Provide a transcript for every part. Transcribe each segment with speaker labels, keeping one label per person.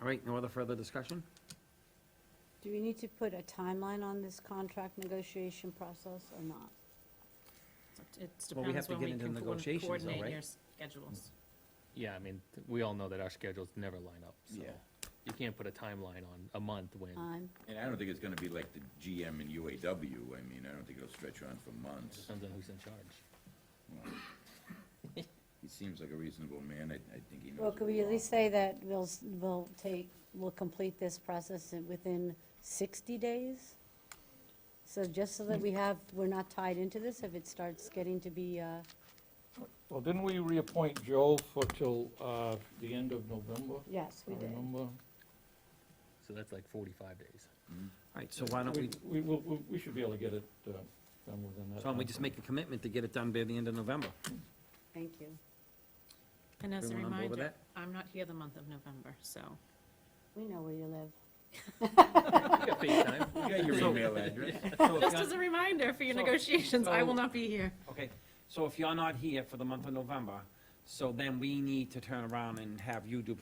Speaker 1: All right, no other further discussion?
Speaker 2: Do we need to put a timeline on this contract negotiation process or not?
Speaker 3: It
Speaker 1: Well, we have
Speaker 3: depends
Speaker 1: to
Speaker 3: when
Speaker 1: get
Speaker 3: we
Speaker 1: into
Speaker 3: can co-
Speaker 1: negotiations though,
Speaker 3: coordinate
Speaker 1: right? Mm.
Speaker 3: your schedules.
Speaker 4: Yeah, I mean, th- we all know that our schedules never line up, so.
Speaker 5: Yeah.
Speaker 4: You can't put a timeline on a month when,
Speaker 2: Time?
Speaker 5: And I don't think it's gonna be like the GM and UAW, I mean, I don't think it'll stretch on for
Speaker 4: it
Speaker 5: months.
Speaker 4: depends on who's in charge.
Speaker 5: He seems like a reasonable man, I, I think he knows.
Speaker 2: Well, could
Speaker 5: what
Speaker 2: we at least
Speaker 5: wants.
Speaker 2: say that we'll, s- we'll take, we'll complete this process in- within 60 days? So just so that we have, we're not tied into this if it starts getting to be, uh,
Speaker 6: Well, didn't we reappoint Joe for till, uh, the end of November?
Speaker 2: yes, we
Speaker 6: I
Speaker 2: did.
Speaker 6: Remember?
Speaker 4: So that's like forty-five days.
Speaker 5: Hmm?
Speaker 1: All right, so why don't we,
Speaker 6: We, will- we, we should be able to get it, uh, done within that.
Speaker 1: so why don't we
Speaker 6: timeframe.
Speaker 1: just make a commitment to get it done by the end of November?
Speaker 2: Thank you.
Speaker 3: And as a
Speaker 1: Everyone on board with
Speaker 3: reminder, I'm not here the month of November, so.
Speaker 2: We know where you live.
Speaker 4: We got FaceTime.
Speaker 5: You got your
Speaker 1: So-
Speaker 5: email address?
Speaker 1: So if
Speaker 3: Just
Speaker 1: you're-
Speaker 3: as a reminder for your
Speaker 1: So-
Speaker 3: negotiations, I will
Speaker 1: so-
Speaker 3: not be here.
Speaker 1: Okay, so if you're not here for the month of November, so then we need to turn around and have you do,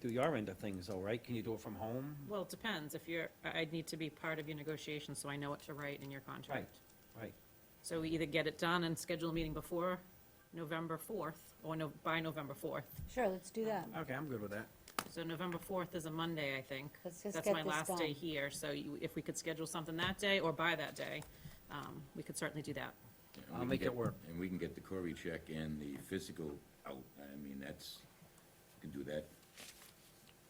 Speaker 1: do your end of things, all right? Can you do it from home?
Speaker 3: Well, it depends. If you're, I- I'd need to be part of your negotiations, so I know what to write in your contract.
Speaker 1: Right,
Speaker 3: So we either get it done and schedule a meeting before November 4th, or no- by November 4th.
Speaker 2: Sure, let's do that.
Speaker 1: okay, I'm good with that.
Speaker 3: So November 4th is a Monday, I think.
Speaker 2: Let's just get this
Speaker 3: That's my last day
Speaker 2: done.
Speaker 3: here, so you- if we could schedule something that day or by that day, um, we could certainly do that.
Speaker 5: And we
Speaker 1: I'll
Speaker 5: can
Speaker 1: make it
Speaker 5: get-
Speaker 1: work.
Speaker 5: And we can get the Cory check and the physical out, I mean, that's, we can do that.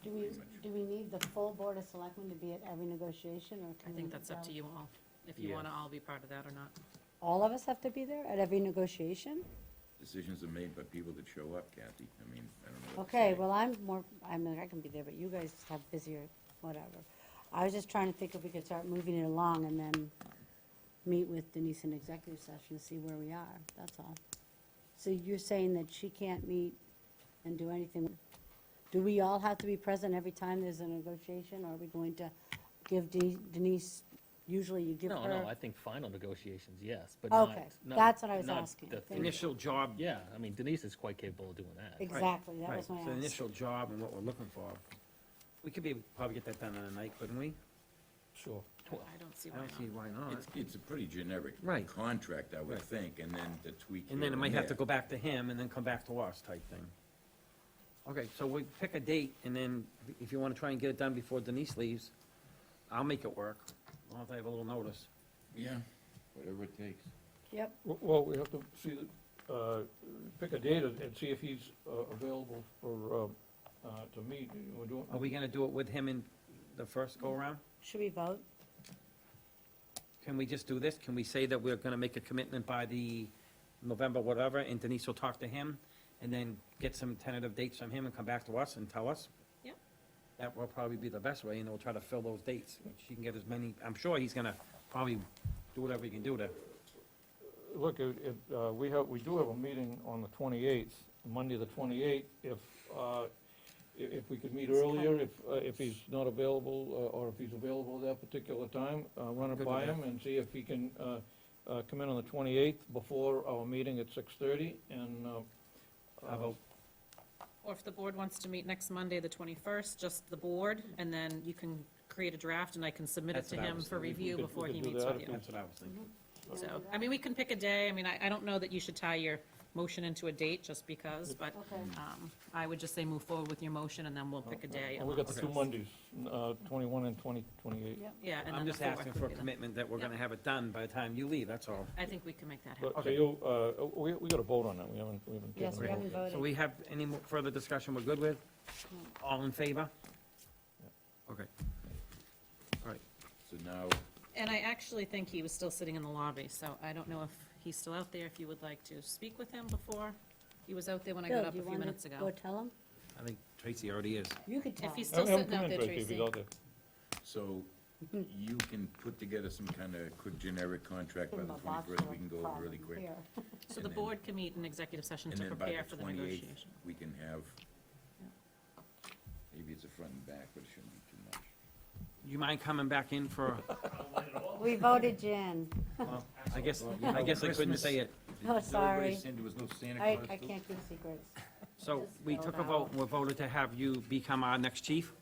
Speaker 2: Do we,
Speaker 5: Pretty much.
Speaker 2: do we need the full Board of Selectmen to be at every negotiation, or
Speaker 3: I
Speaker 2: can we?
Speaker 3: think that's up to you all, if you
Speaker 4: Yeah.
Speaker 3: want to all be part of that or not.
Speaker 2: All of us have to be there at every negotiation?
Speaker 5: Decisions are made by people that show up, Kathy, I mean, I don't know what to
Speaker 2: Okay,
Speaker 5: say.
Speaker 2: well, I'm more, I mean, I can be there, but you guys have busier, whatever. I was just trying to think if we could start moving it along and then meet with Denise in executive session to see where we are, that's all. So you're saying that she can't meet and do anything? Do we all have to be present every time there's a negotiation, or are we going to give De- Denise, usually you give her?
Speaker 4: No, no, I think final negotiations, yes, but not.
Speaker 2: Okay,
Speaker 4: not-
Speaker 2: that's what I was
Speaker 4: not
Speaker 2: asking.
Speaker 4: the
Speaker 2: Thank
Speaker 4: three.
Speaker 1: Initial job.
Speaker 4: Yeah, I mean Denise is quite capable of doing that.
Speaker 2: Exactly, that
Speaker 1: Right,
Speaker 2: was my
Speaker 1: so the
Speaker 2: ask.
Speaker 1: Initial job and what we're looking for. We could be, probably get that done in a night, couldn't we?
Speaker 6: Sure.
Speaker 4: Well,
Speaker 3: I don't see
Speaker 1: I
Speaker 3: why
Speaker 1: don't see
Speaker 3: not.
Speaker 1: why not.
Speaker 5: It's, it's a pretty generic.
Speaker 1: Right.
Speaker 5: Contract, I would
Speaker 1: Right.
Speaker 5: think, and then the tweak.
Speaker 1: And then
Speaker 5: here
Speaker 1: it might have to
Speaker 5: there.
Speaker 1: go back to him and then come back to us type thing. Okay, so we pick a date and then if you wanna try and get it done before Denise leaves, I'll make it work. I'll have to have a little notice.
Speaker 5: Yeah, whatever it takes.
Speaker 2: Yep,
Speaker 6: W- Well, we have to see, the- uh, pick a date and and see if he's, uh, available for, uh, uh, to meet. We're doing-
Speaker 1: Are we gonna do it with him in the first go around?
Speaker 2: should we vote?
Speaker 1: Can we just do this? Can we say that we're gonna make a commitment by the November whatever, and Denise will talk to him, and then get some tentative dates from him and come back to us and tell us?
Speaker 3: Yep.
Speaker 1: That will probably be the best way, and we'll try to fill those dates. She can get as many, I'm sure he's gonna probably do whatever he can do to,
Speaker 6: Look, it, it, uh, we have, we do have a meeting on the 28th, Monday the 28th. If, uh, i- if we could meet earlier, if, uh, if he's not available, uh, or if he's available at that particular time, uh, run
Speaker 1: Good
Speaker 6: it
Speaker 1: with
Speaker 6: by
Speaker 1: that.
Speaker 6: him and see if he can uh, uh, come in on the 28th before our meeting at 6:30 and. uh,
Speaker 1: How about-
Speaker 3: Or if the board wants to meet next Monday, the 21st, just the board, and then you can create a draft and I can submit it
Speaker 1: That's
Speaker 3: to
Speaker 1: what I
Speaker 3: him
Speaker 1: was
Speaker 3: for
Speaker 1: thinking.
Speaker 6: We
Speaker 3: review
Speaker 6: could- we
Speaker 3: before
Speaker 6: could
Speaker 3: he
Speaker 6: do
Speaker 3: meets
Speaker 6: that
Speaker 3: with
Speaker 6: if
Speaker 3: you.
Speaker 1: that's what I was thinking.
Speaker 3: So, I mean, we can pick a day. I mean, I, I don't know that you should tie your motion into a date just because, but
Speaker 2: Okay.
Speaker 3: um, I would just say move forward with your motion and then we'll pick a day.
Speaker 6: Well, We got the two
Speaker 1: Okay.
Speaker 6: Mondays, uh, 21 and 20, 28.
Speaker 2: Yep.
Speaker 3: Yeah, and then
Speaker 1: I'm
Speaker 3: the
Speaker 1: just
Speaker 3: fourth
Speaker 1: asking
Speaker 3: would
Speaker 1: for a
Speaker 3: be the-
Speaker 1: commitment that we're gonna have it done by the time you leave, that's all.
Speaker 3: I think we can make that happen.
Speaker 6: But, so you, uh, we, we got a vote on that. We haven't, we haven't.
Speaker 2: Yes,
Speaker 6: taken
Speaker 2: we
Speaker 6: a vote
Speaker 2: haven't
Speaker 6: yet.
Speaker 1: So
Speaker 2: voted.
Speaker 1: we have any more further discussion we're good with? All in favor? Okay. All right,
Speaker 5: So now,
Speaker 3: And I actually think he was still sitting in the lobby, so I don't know if he's still out there, if you would like to speak with him before. He was out there when I
Speaker 2: Bill,
Speaker 3: got up
Speaker 2: do you
Speaker 3: a few
Speaker 2: wanna
Speaker 3: minutes
Speaker 2: Go
Speaker 3: ago.
Speaker 2: tell him?
Speaker 1: I think Tracy already is.
Speaker 2: You could tell
Speaker 3: If he's
Speaker 2: him.
Speaker 3: still
Speaker 6: Have him
Speaker 3: sitting
Speaker 6: come
Speaker 3: out
Speaker 6: in,
Speaker 3: there,
Speaker 6: if he's
Speaker 3: Tracy.
Speaker 6: out there.
Speaker 5: so you can put together some kind of quick generic contract
Speaker 2: Give
Speaker 5: by
Speaker 2: him
Speaker 5: the
Speaker 2: a box
Speaker 5: twenty-first, we
Speaker 2: of
Speaker 5: can go over really
Speaker 2: problems
Speaker 5: quick.
Speaker 2: here.
Speaker 3: So
Speaker 5: and
Speaker 3: the
Speaker 5: then-
Speaker 3: board can meet in executive session
Speaker 5: And
Speaker 3: to
Speaker 5: then by
Speaker 3: prepare for
Speaker 5: the
Speaker 3: the
Speaker 5: twenty-eighth,
Speaker 3: negotiation.
Speaker 5: we can have,
Speaker 3: Yeah.
Speaker 5: maybe it's a front and back, but it shouldn't be too much.
Speaker 2: Oh,
Speaker 1: You mind coming back in for,
Speaker 2: We voted Jen.
Speaker 1: I guess, I guess I couldn't say it.
Speaker 2: No,
Speaker 5: Did everybody
Speaker 2: sorry.
Speaker 5: send- There was no Santa
Speaker 2: I,
Speaker 5: Claus?
Speaker 2: I
Speaker 5: too?
Speaker 2: can't keep secrets.
Speaker 1: So we took a vote, and we voted to have you become our next chief?